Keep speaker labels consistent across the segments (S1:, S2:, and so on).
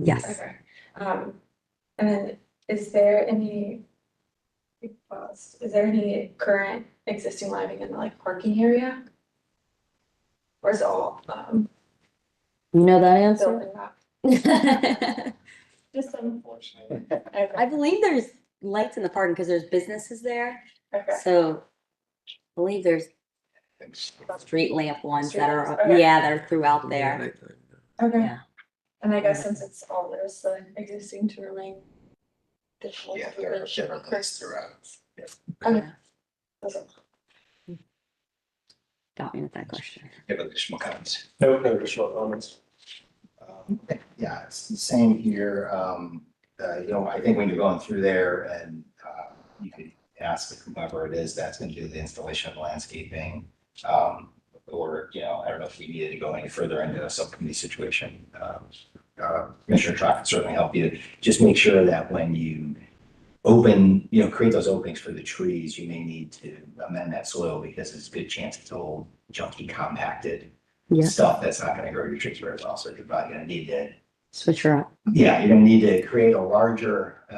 S1: Yes,
S2: Okay, um, and then is there any? we paused. Is there any current existing lighting in the like parking area? Or is it all um
S1: you know that answer?
S2: building up?
S3: Just unfortunately.
S1: I believe there's lights in the parking because there's businesses there,
S2: Okay,
S1: so I believe there's street lamp ones that are,
S2: Street lamps, okay.
S1: yeah, that are throughout there.
S2: okay,
S1: Yeah.
S2: and I guess since it's all there's the existing to remain. Digital.
S3: Yeah, there are different lights throughout.
S2: Okay,
S1: Yeah.
S2: that's all.
S1: Got me with that question.
S3: Give additional comments.
S4: No, no additional comments.
S5: Um, Yeah, it's the same here. Um, uh, you know, I think when you're going through there and, uh, you could ask whomever it is that's gonna do the installation of landscaping. Um, or, you know, I don't know if we needed to go any further into a subcommittee situation. Um, Uh, Commissioner Trot can certainly help you. Just make sure that when you open, you know, create those openings for the trees, you may need to amend that soil because there's a good chance it's old, junky, compacted
S1: Yeah.
S5: stuff that's not gonna grow your trees very well, so you're probably gonna need to,
S1: Switch her up.
S5: yeah, you're gonna need to create a larger uh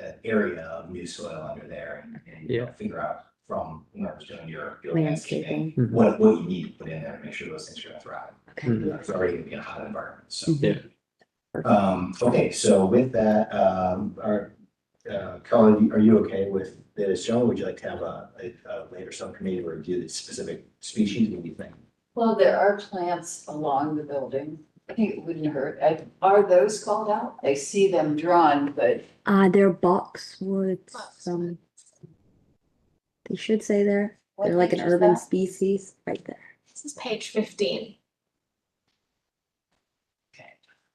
S5: uh, area of new soil under there and- and you know, figure out from whoever's doing your your landscaping,
S1: Landscaping.
S5: what what you need to put in there, to make sure those things are gonna thrive.
S2: Hmm.
S1: Okay.
S5: It's already gonna be a hot environment, so.
S1: Mhm.
S5: Um, okay, so with that, um, are, uh, Colin, are you okay with this? John, would you like to have a a a later subcommittee review the specific species, what do you think?
S6: Well, there are plants along the building. I think it wouldn't hurt. I- Are those called out? I see them drawn, but
S1: Uh, they're boxwoods,
S2: Boxwood.
S1: um. They should say there,
S6: what
S1: they're like an
S6: page is
S1: urban
S6: that?
S1: species right there.
S2: This is page fifteen.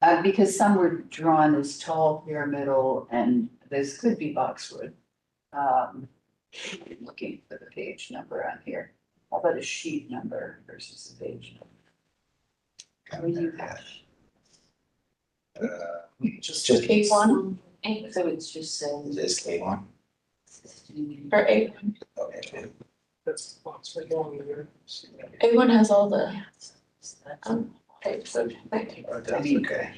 S6: Uh, because some were drawn as tall pyramidal and those could be boxwood. Um, looking for the page number on here. How about a sheet number versus a page? number? How do you have?
S5: Just, just.
S6: Page one.
S2: Eight
S6: So it's just saying.
S5: Is K one?
S2: or A one.
S5: Okay.
S4: That's lots of long there.
S2: A one has all the um types of lighting.
S5: Oh, That's okay.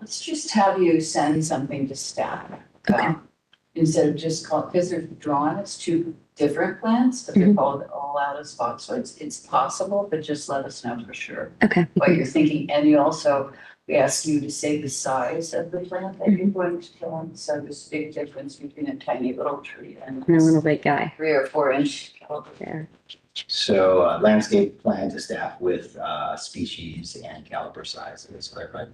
S6: Let's just have you send something to staff.
S1: Okay.
S6: um, Instead of just call, because they're drawn as two different plants, but they're
S1: Mhm.
S6: called all out as boxwoods. It's possible, but just let us know for sure
S1: Okay.
S6: what you're thinking. And you also, we ask you to say the size of the plant that
S1: Mm-hmm.
S6: you're going to plant. So there's a big difference between a tiny little tree and
S1: And a little big guy
S6: three or four inch. caliber.
S1: there.
S5: So uh, landscape plan to staff with uh, species and caliper size, is clarified.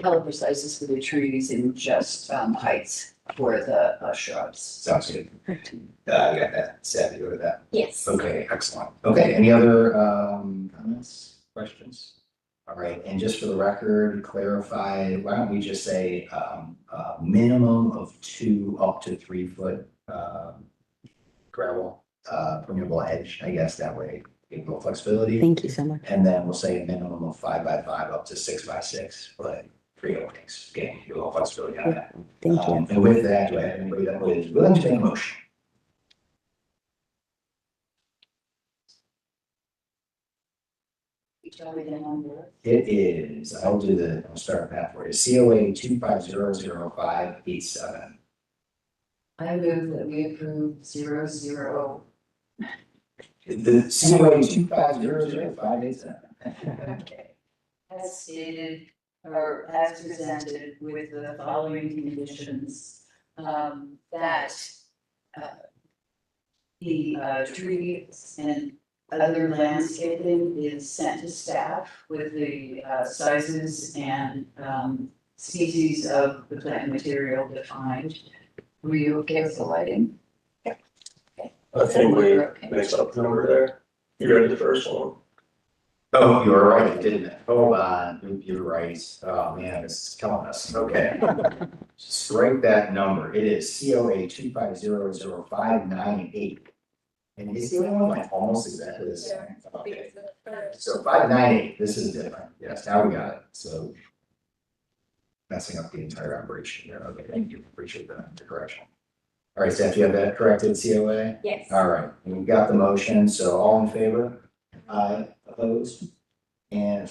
S6: Caliber sizes for the trees and just um, heights for the uh, shrubs.
S5: Sounds good.
S1: Perfect.
S5: Uh, you got that, Seth, you go to that.
S2: Yes.
S5: Okay, excellent. Okay, any other um, comments, questions? All right, and just for the record, clarify, why don't we just say um, uh, minimum of two up to three foot um, gravel, uh, permeable edge, I guess, that way, give a little flexibility.
S1: Thank you so much.
S5: And then we'll say a minimum of five by five up to six by six, but three openings, again, you all flexibility on that.
S1: Thank you.
S5: Um, And with that, do I have anybody that would, will entertain a motion?
S6: You tell me the number.
S5: It is, I'll do the, I'll start that for you, COA two five zero zero five eight seven.
S6: I move that we approve zero zero.
S5: The COA two five zero zero five eight seven.
S6: Okay. As stated, or as presented with the following conditions, um, that uh, the uh, trees and other landscaping is sent to staff with the uh, sizes and um, species of the plant material defined. Were you okay with the lighting?
S4: I think we
S6: We're okay.
S4: mixed up the number there. You read the first one.
S5: Oh, you were right, didn't it? Hold on, you- you're right, oh man, it's killing us, okay. Strike that number, it is COA two five zero zero five nine eight. And is the other one like almost exactly the same? Okay. So five nine eight, this is different, yes, now we got it, so. Messing up the entire operation there, okay, thank you, appreciate the the correction. All right, Steph, you have that corrected COA?
S2: Yes.
S5: All right, we've got the motion, so all in favor? Aye, opposed? And